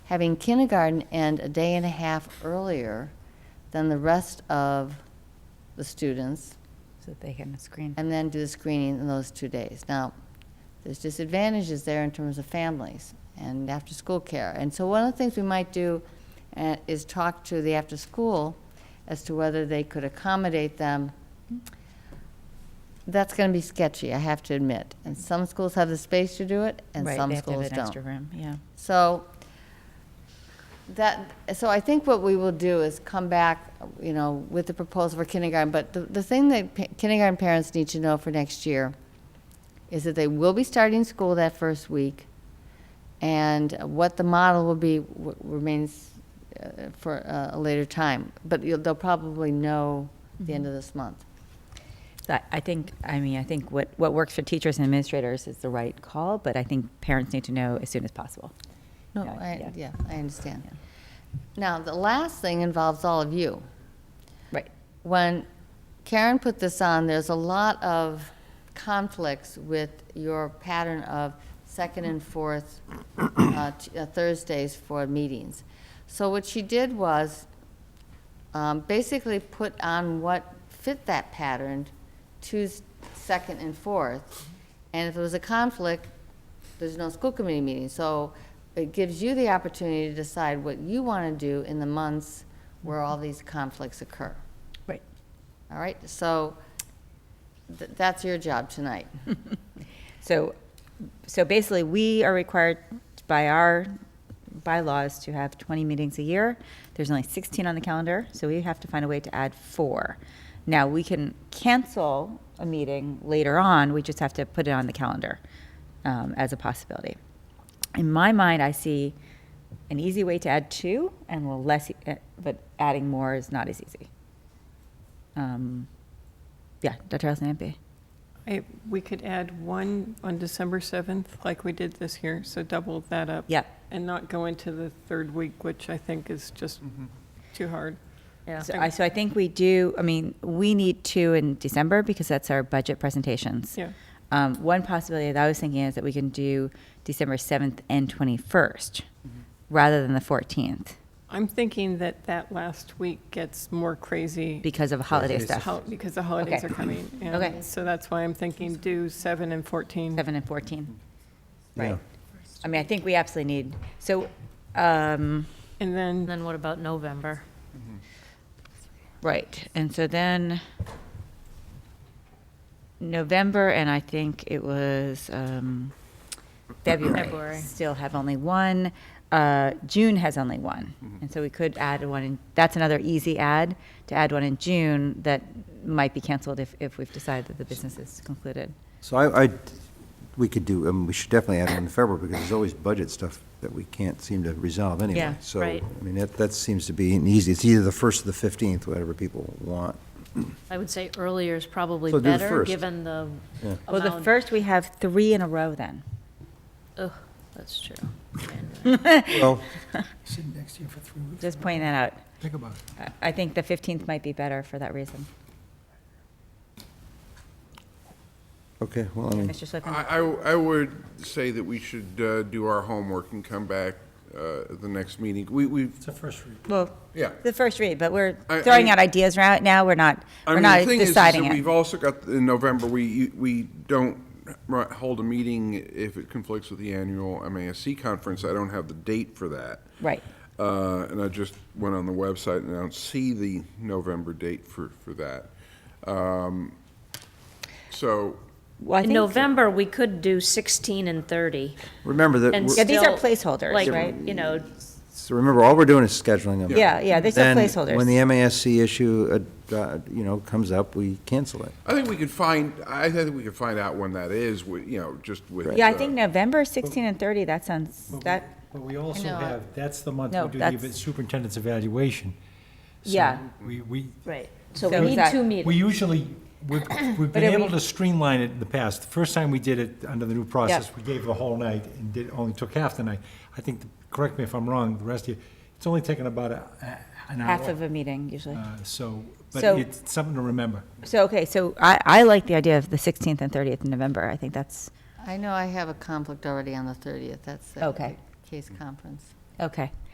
having kindergarten end a day and a half earlier than the rest of the students, So they can screen. and then do the screening in those two days. Now, there's disadvantages there in terms of families and after-school care. And so one of the things we might do uh, is talk to the after-school as to whether they could accommodate them. That's going to be sketchy, I have to admit. And some schools have the space to do it, and Right, some they have to have schools an don't. Extra room, yeah. So that, so I think what we will do is come back, you know, with the proposal for kindergarten. But the, the thing that pa- kindergarten parents need to know for next year is that they will be starting school that first week. And what the model will be w- remains uh, for uh, a later time. But you'll, they'll probably know the end of this month. So I- I think, I mean, I think what, what works for teachers and administrators is the right call, but I think parents need to know as soon as possible. No, Yeah, I, yeah. yeah, I understand. Now, the last thing involves all of you. Right. when Karen put this on, there's a lot of conflicts with your pattern of second and fourth uh, t- uh, Thursdays for meetings. So what she did was um, basically put on what fit that pattern, Tuesday, second and fourth. And if there was a conflict, there's no school committee meeting. So it gives you the opportunity to decide what you want to do in the months where all these conflicts occur. Right. All right, so th- that's your job tonight. So, so basically, we are required by our bylaws to have 20 meetings a year. There's only 16 on the calendar, so we have to find a way to add four. Now, we can cancel a meeting later on, we just have to put it on the calendar um, as a possibility. In my mind, I see an easy way to add two and a less, e- eh, but adding more is not as easy. Um, Yeah, Dr. Alison-Ampe? I- We could add one on December 7th, like we did this year, so double that up. Yep. And not go into the third week, which I think is just Mm-hmm. too hard. So I, so I think we do, I mean, we need two in December because that's our budget presentations. Yeah. Um, one possibility that I was thinking is that we can do December 7th and 21st Mm-hmm. rather than the 14th I'm thinking that that last week gets more crazy because of holiday Holidays. stuff. hol- because the holidays Okay. are coming. and Okay. So that's why I'm thinking do 7 and 14. 7 and 14. Yeah. Right. I mean, I think we absolutely need, so, um, And And then, then what about November? right. And so then November and I think it was, um, February. February. Still have only one. Uh, June has only one. And so we could add one, in that's another easy add, to add one in June that might be canceled if, if we've decided that the business is concluded. So I, I, we could do, I mean, we should definitely add one in February, because there's always budget stuff that we can't seem to resolve anyway. Yeah, So, right. I mean, that, that seems to be an easy, it's either the first or the fifteenth, whatever people want. I would say earlier is probably So do the better, first. given the Yeah. Well, the amount- first, we have three in a row then. Ugh, that's true. Well, Sitting next to you for three weeks. Just pointing that out. Think about it. I- I think the 15th might be better for that reason. okay, well, I mean, Mr. Slifkin? I, I- I would say that we should uh, do our homework and come back uh, at the next meeting. We, we, It's a first read. Well, yeah. the first read, but we're I- throwing I- out ideas right now. We're not, I we're mean, the not thing is- is deciding that it. We've also got, in November, we, we don't ri- hold a meeting if it conflicts with the annual MASC conference. I don't have the date for that. Right. Uh, And I just went on the website and I don't see the November date for, for that. Um, So, Well, I In think- November, we could do 16 and 30. remember that, And Yeah, we're- these are still, placeholders, like, right? You know, so remember, all we're doing is scheduling them. Yeah, yeah, they're still Then, placeholders. when the MASC issue, uh, uh, you know, comes up, we cancel it. I think we could find, I think we could find out when that is, with, you know, just with. Yeah, I uh, think November 16 and 30, that sounds, But we- that, uh, But we also know. have, that's the month No, we do the that's- eva- superintendent's evaluation. So Yeah. We, we, right, so So we need that- two we meetings. usually, we've, we've been it- able to streamline it in the past. The first time we did it under the new process, we gave the whole night and did, only took half the night. I think, the- correct me if I'm wrong, the rest of you, it's only taken about a, a- an hour. half of a meeting usually. Uh, So, but So- it's something to remember. So, okay, so I, I like the idea of the 16th and 30th of November. I think that's, I know I have a conflict already on the 30th, that's the Okay. case conference. Okay.